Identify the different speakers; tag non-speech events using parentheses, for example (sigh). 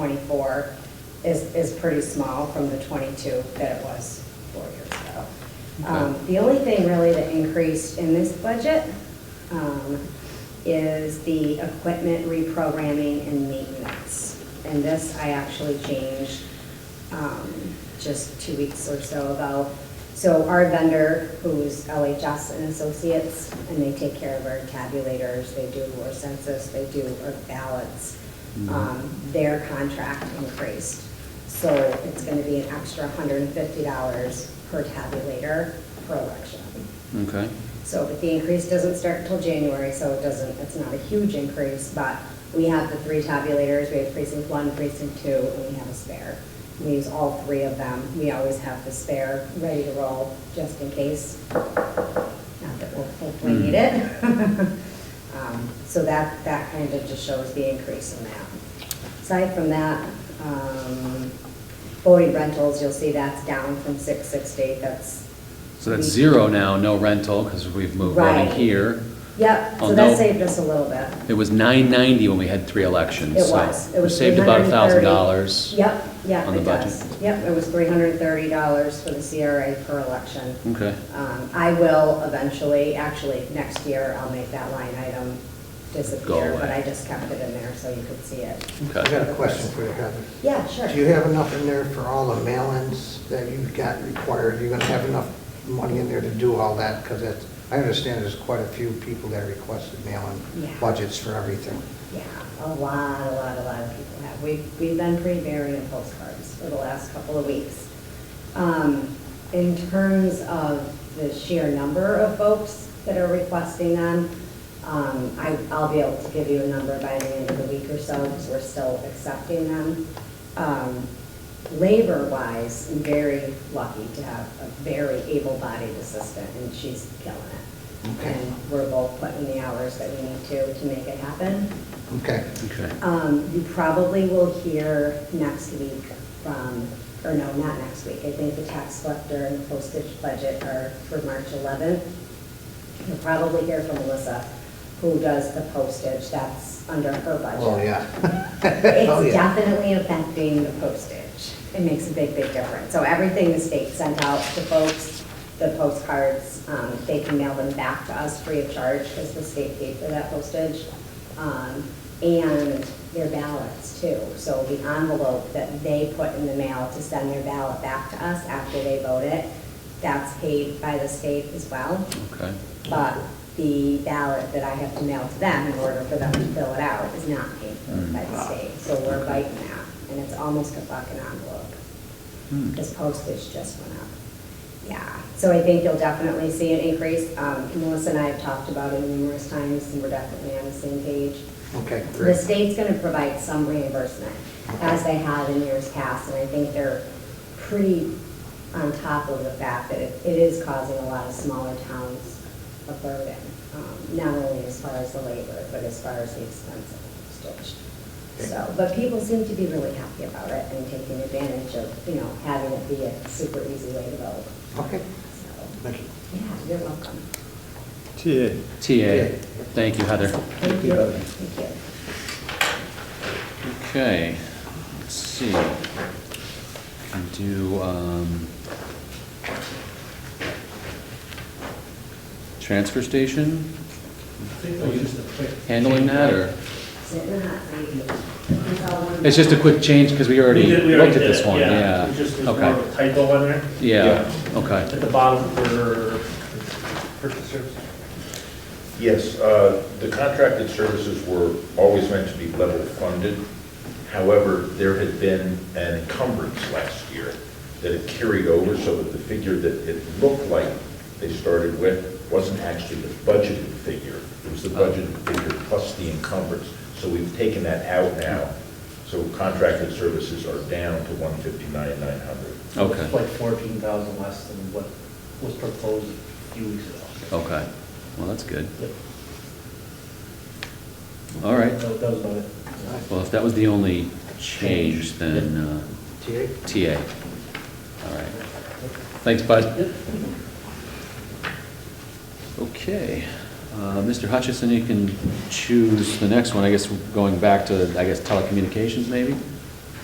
Speaker 1: for is, is pretty small from the 22 that it was four years ago. Um, The only thing really that increased in this budget um, is the equipment reprogramming and maintenance. And this I actually changed um, just two weeks or so ago. So our vendor, who's LHS and Associates, and they take care of our tabulators, they do our census, they do our ballots, um, their contract increased. So it's going to be an extra $150 per tabulator per election.
Speaker 2: Okay,
Speaker 1: So, but the increase doesn't start until January, so it doesn't, it's not a huge increase, but we have the three tabulators, we have precinct one, precinct two, and we have a spare. We use all three of them, we always have the spare ready to roll, just in case. Not that we'll hopefully
Speaker 2: Hmm.
Speaker 1: need it. (laughs) Um, So that, that kind of just shows the increase in that. Aside from that, um, Boyd rentals, you'll see that's down from six sixty, that's.
Speaker 2: so that's zero now, no rental, because we've moved one in
Speaker 1: Right.
Speaker 2: here.
Speaker 1: Yep,
Speaker 2: Oh,
Speaker 1: so that
Speaker 2: no.
Speaker 1: saved us a little bit.
Speaker 2: It was nine ninety when we had three elections,
Speaker 1: It
Speaker 2: so.
Speaker 1: was, it
Speaker 2: We
Speaker 1: was.
Speaker 2: saved about a thousand
Speaker 1: $330.
Speaker 2: dollars.
Speaker 1: Yep, yep,
Speaker 2: on the
Speaker 1: it
Speaker 2: budget.
Speaker 1: does. Yep, it was three hundred and thirty dollars for the CRA per election.
Speaker 2: Okay.
Speaker 1: Um, I will eventually, actually, next year, I'll make that line item disappear,
Speaker 2: away.
Speaker 1: but I just kept it in there so you could see it.
Speaker 3: I
Speaker 2: Okay,
Speaker 3: got a question for you, Heather.
Speaker 1: Yeah, sure.
Speaker 3: Do you have enough in there for all the mail-ins that you've got required? You're gonna have enough money in there to do all that? Because that's, I understand there's quite a few people that requested
Speaker 1: Yeah.
Speaker 3: mail-in budgets for everything.
Speaker 1: Yeah, a lot, a lot, a lot of people have. We've, we've been pretty varied in postcards for the last couple of weeks. Um, In terms of the sheer number of folks that are requesting them, um, I, I'll be able to give you a number by the end of the week or so, because we're still accepting them. Um, Labor-wise, I'm very lucky to have a very able-bodied assistant, and she's killing it.
Speaker 3: Okay.
Speaker 1: And we're both putting the hours that we need to, to make it happen.
Speaker 3: Okay,
Speaker 2: okay.
Speaker 1: Um, You probably will hear next week from, or no, not next week. I think the tax collector and postage budget are for March 11th. You'll probably hear from Melissa, who does the postage. That's under her budget.
Speaker 3: oh, yeah. (laughs) Oh,
Speaker 1: It's
Speaker 3: yeah.
Speaker 1: definitely affecting the postage. It makes a big, big difference. So everything the state sent out to folks, the postcards, um, they can mail them back to us free of charge because the state paid for that postage. Um, And their ballots too. So the envelope that they put in the mail to send their ballot back to us after they vote it, that's paid by the state as well.
Speaker 2: Okay.
Speaker 1: But the ballot that I have to mail to them in order for them to fill it out is not paid for by the state. So we're biting that, and it's almost a fucking envelope.
Speaker 2: Hmm.
Speaker 1: Because postage just went up. Yeah, so I think you'll definitely see an increase. Um, Melissa and I have talked about it numerous times, and we're definitely on the same page.
Speaker 3: Okay,
Speaker 1: The
Speaker 3: great.
Speaker 1: state's gonna provide some reimbursement, as they have in years past, and I think they're pretty on top of the fact that it it is causing a lot of smaller towns a burden, um, not only as far as the labor, but as far as the expense of postage. So, but people seem to be really happy about it and taking advantage of, you know, having it be a super easy way to vote.
Speaker 3: Okay,
Speaker 1: So,
Speaker 3: thank you.
Speaker 1: yeah, you're welcome.
Speaker 4: TA.
Speaker 2: TA, thank you, Heather.
Speaker 1: Thank you. Thank you.
Speaker 2: Okay, let's see. Can do, um, transfer station, handling that, or?
Speaker 1: Sit in the hot seat.
Speaker 2: It's just a quick change, because we already
Speaker 5: We did- we
Speaker 2: looked at
Speaker 5: did
Speaker 2: this
Speaker 5: it,
Speaker 2: one, yeah.
Speaker 5: It just was more
Speaker 2: Okay,
Speaker 5: of a typo on there.
Speaker 2: yeah, okay.
Speaker 5: At the bottom for purchase service.
Speaker 6: Yes, uh, the contracted services were always meant to be level funded. However, there had been an encumbrance last year that had carried over so that the figure that it looked like they started with wasn't actually the budgeted figure. It was the budgeted figure plus the encumbrance. So we've taken that out now. So contracted services are down to 159,900.
Speaker 2: Okay.
Speaker 5: It's like fourteen thousand less than what was proposed a few weeks ago.
Speaker 2: Okay, well, that's good.
Speaker 5: Yep.
Speaker 2: All right,
Speaker 5: That that was about it.
Speaker 2: well, if that was the only change, then uh,
Speaker 3: TA?
Speaker 2: TA. All right. Thanks, bud. Okay, uh, Mr. Hutchison, you can choose the next one, I guess, going back to, I guess, telecommunications, maybe?